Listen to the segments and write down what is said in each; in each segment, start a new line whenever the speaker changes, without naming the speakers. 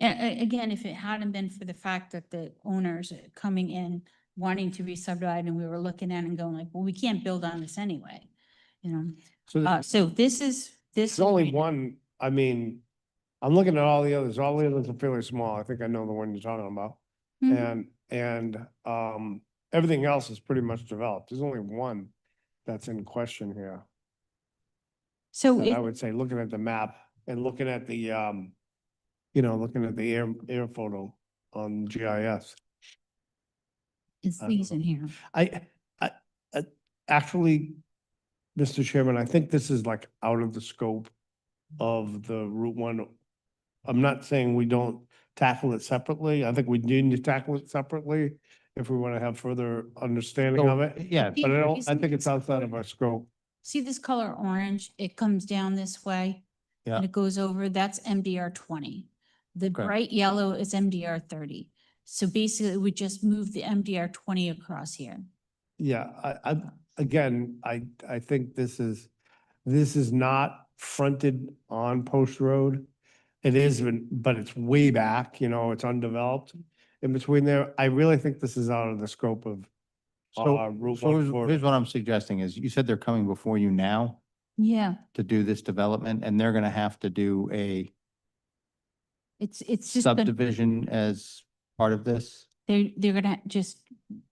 A- a- again, if it hadn't been for the fact that the owners uh, coming in wanting to be subdivided and we were looking at it and going like, well, we can't build on this anyway. You know,
So
uh,
there's-
so this is, this.
there's only one, I mean, I'm looking at all the others, all the others are fairly small. I think I know the one you're talking about.
Mhm.
And, and, um, everything else is pretty much developed. There's only one that's in question here.
So
that I
if,
would say, looking at the map and looking at the, um, you know, looking at the air, air photo on GIS.
it's
I don't
these
know.
in here.
I, I, I- actually, Mr. Chairman, I think this is like out of the scope of the Route One. I'm not saying we don't tackle it separately. I think we do need to tackle it separately if we want to have further understanding of it.
Yeah,
But I don't, I
Isn't
think it's
this
outside
color-
of our scope.
See this color orange? It comes down this way.
Yeah.
And it goes over, that's MDR twenty. The
Okay.
bright yellow is MDR thirty. So basically, we just move the MDR twenty across here.
Yeah, I, I, again, I, I think this is, this is not fronted on Post Road. It is, been- but it's way back, you know, it's undeveloped. In between there, I really think this is out of the scope of
so,
uh, Route
so here's,
140.
here's what I'm suggesting is you said they're coming before you now
Yeah,
to do this development and they're gonna have to do a
it's, it's just, gonna-
subdivision as part of this?
they're, they're gonna just,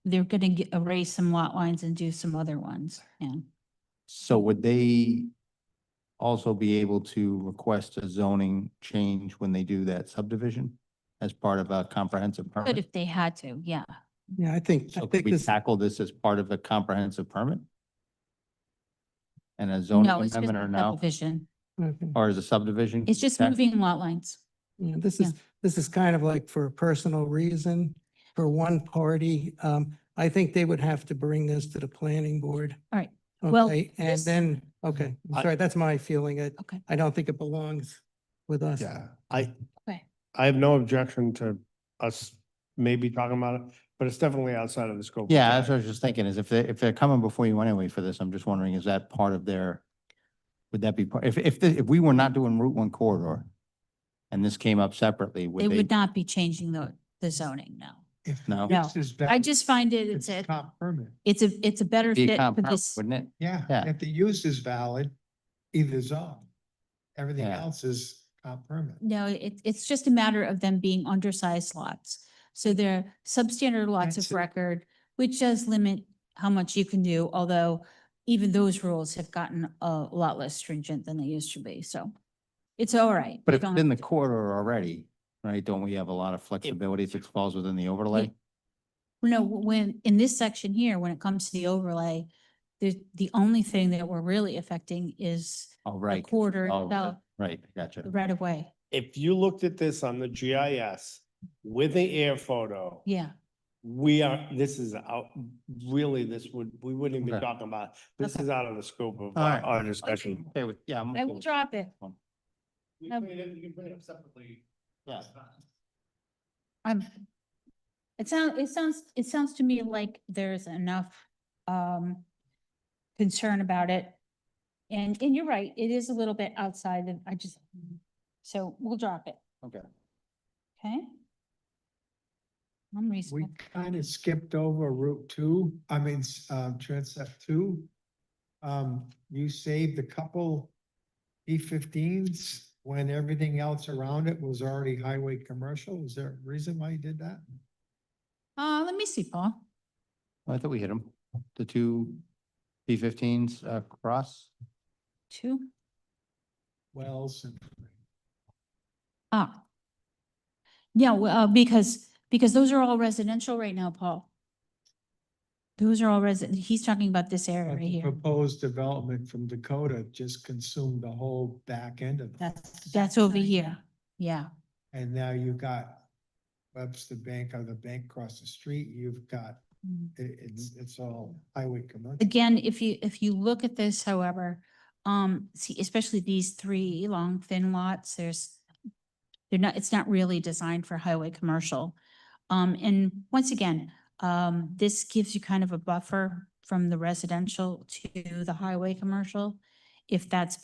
they're gonna get- erase some lot lines and do some other ones. Yeah.
So would they also be able to request a zoning change when they do that subdivision as part of a comprehensive
But
permit?
if they had to, yeah.
Yeah, I think, I
So could
think
we
this,
tackle this as part of a comprehensive permit? And a zoning
No, it's just
amendment
a
or no,
subdivision.
okay.
or as a subdivision?
It's just
That-
moving lot lines.
Yeah, this
yeah.
is, this is kind of like for a personal reason, for one party. Um, I think they would have to bring this to the planning board.
All right. Well,
Okay, and
this-
then, okay, I'm
I-
sorry, that's my feeling. I,
Okay.
I don't think it belongs with us.
Yeah, I,
Okay.
I have no objection to us maybe talking about it, but it's definitely outside of the scope. of
Yeah, that's what I
that.
was just thinking, is if they, if they're coming before you anyway for this, I'm just wondering, is that part of their, would that be part, if, if, the- if we were not doing Route One corridor and this came up separately,
They
would they?
would not be changing the, the zoning, no.
If
No.
No.
this is
I
valid,
just find it, it's a,
comp permit.
it's a, it's a better
be a
fit for
compound,
this.
Wouldn't it?
Yeah,
Yeah.
if the use is valid, either zone. Everything
Yeah.
else is comp permit.
No, it, it's just a matter of them being undersized lots. So they're substandard lots of
That's it.
record, which does limit how much you can do, although even those rules have gotten a lot less stringent than they used to be, so it's all right.
But
You
if
don't
it's in the
have to-
corridor already, right, don't we have a lot of flexibility if it falls within the overlay?
No, when, in this section here, when it comes to the overlay, the, the only thing that we're really affecting is
Oh,
the
right,
quarter
oh,
itself,
right, gotcha.
right of way.
If you looked at this on the GIS with the air photo.
Yeah,
We are, this is out, really, this would, we wouldn't even be
Okay.
talking about, this
Okay.
is out of the scope of
All
our,
right.
our discussion.
Okay, with- yeah. I'm
I
okay
will
with-
drop it.
We
No.
it, you can bring it up separately.
Yeah.
I'm, it sounds, it sounds, it sounds to me like there's enough, um, concern about it. And, and you're right, it is a little bit outside of, I just, so we'll drop it,
Okay.
okay? I'm
We
reasonable.
kind of skipped over Route Two, I mean, s- um, Transect Two. Um, you saved a couple E fifteens when everything else around it was already highway commercial. Is there a reason why you did that?
Uh, let me see, Paul.
I thought we hit them, the two B fifteens across.
Two,
Wells and.
ah. Yeah, well, uh, because, because those are all residential right now, Paul. Those are all resident, he's talking about this area
But
right
the
here.
Proposed development from Dakota just consumed the whole back end of. it.
That's, that's over here, yeah.
And now you've got Webster Bank or the bank across the street, you've got,
Mm.
it, it's, it's all highway commercial.
Again, if you, if you look at this, however, um, see, especially these three long thin lots, there's, they're not, it's not really designed for highway commercial. Um, and once again, um, this gives you kind of a buffer from the residential to the highway commercial, if that's